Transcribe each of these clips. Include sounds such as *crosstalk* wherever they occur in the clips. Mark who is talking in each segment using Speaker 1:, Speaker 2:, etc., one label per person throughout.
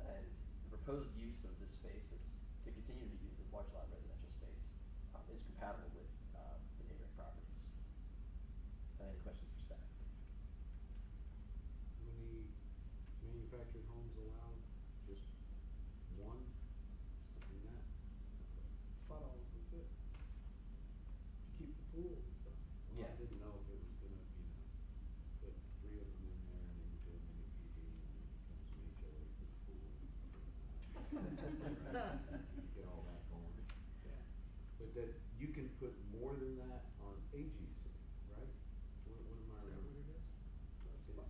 Speaker 1: uh, proposed use of this space is to continue to use a large lot residential space um, is compatible with um, the neighboring properties. Uh, Any questions for staff?
Speaker 2: How many manufactured homes allowed? Just one? Something like that?
Speaker 3: spot on with it. To keep the pool and stuff.
Speaker 2: Well,
Speaker 1: Yeah.
Speaker 2: I didn't know if it was gonna, you know, put three of them in there and then do a mini PD and then it becomes an HOA for the pool. You Get all that going. Yeah. But that, you can put more than that on AGC, right? What, what am I remembering? That's it? Is
Speaker 4: So
Speaker 2: that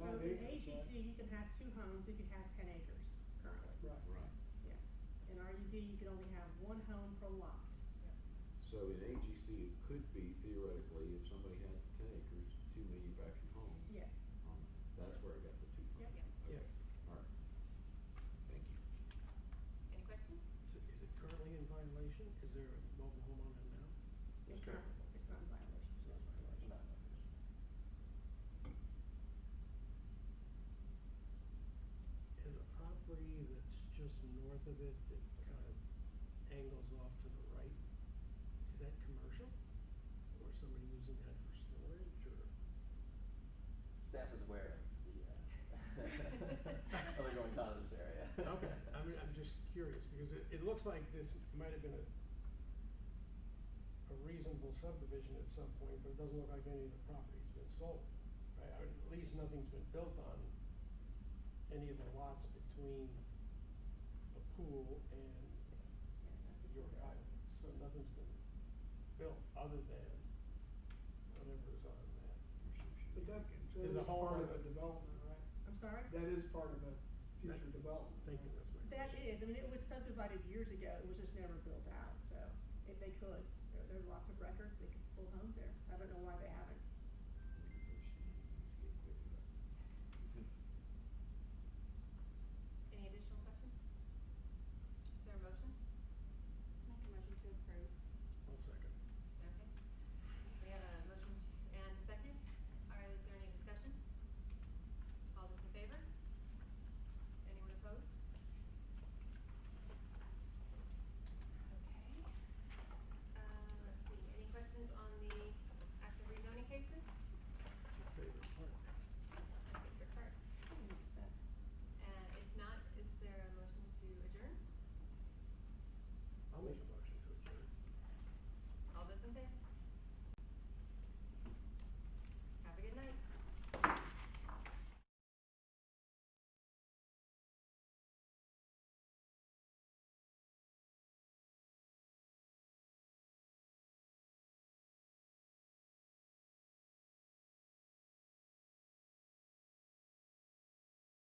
Speaker 3: Five
Speaker 4: in
Speaker 2: it?
Speaker 3: acres,
Speaker 4: AGC, you can have two homes, you can have ten acres currently,
Speaker 3: Right.
Speaker 2: Right.
Speaker 4: yes. In RUD, you can only have one home per lot.
Speaker 2: So in AGC, it could be theoretically, if somebody had ten acres, two manufactured homes,
Speaker 4: Yes,
Speaker 2: um, that's where I got the two from.
Speaker 4: yep,
Speaker 2: Okay, Alright, thank you.
Speaker 5: Any questions?
Speaker 6: So is it currently in violation? Is there a mobile home on it now?
Speaker 4: it's
Speaker 1: Sure.
Speaker 4: not, it's not in violation.
Speaker 1: No, no.
Speaker 6: And the property that's just north of it that kind of angles off to the right, is that commercial? Or somebody using that for storage or?
Speaker 1: Staff is aware *laughs* of the, uh, other goings on in this area.
Speaker 6: Okay, I mean, I'm just curious because it, it looks like this might have been a a reasonable subdivision at some point, but it doesn't look like any of the property's been sold, right? Or at least nothing's been built on any of the lots between the pool and York Island. So nothing's been built other than whatever is on that.
Speaker 3: But that, that is
Speaker 6: Is the whole
Speaker 3: part of a
Speaker 6: other-
Speaker 3: development, right?
Speaker 4: I'm sorry?
Speaker 3: That is part of a future
Speaker 6: Right.
Speaker 3: development.
Speaker 6: Thank you,
Speaker 3: right?
Speaker 6: that's my
Speaker 4: That
Speaker 6: question.
Speaker 4: is, I mean, it was subdivided years ago, it was just never built out, so if they could, there, there are lots of records, they could pull homes there. I don't know why they haven't.
Speaker 5: Any additional questions? Is there a motion?
Speaker 7: Make a motion to approve.
Speaker 6: One second.
Speaker 5: Okay. We have a motion to- and a second. All right, is there any discussion? All those in favor? Anyone opposed? Okay. Um, let's see, any questions on the active rezoning cases?
Speaker 6: Your favorite part.
Speaker 5: I think they're correct.
Speaker 3: Hmm.
Speaker 5: And if not, is there a motion to adjourn?
Speaker 6: I'll make a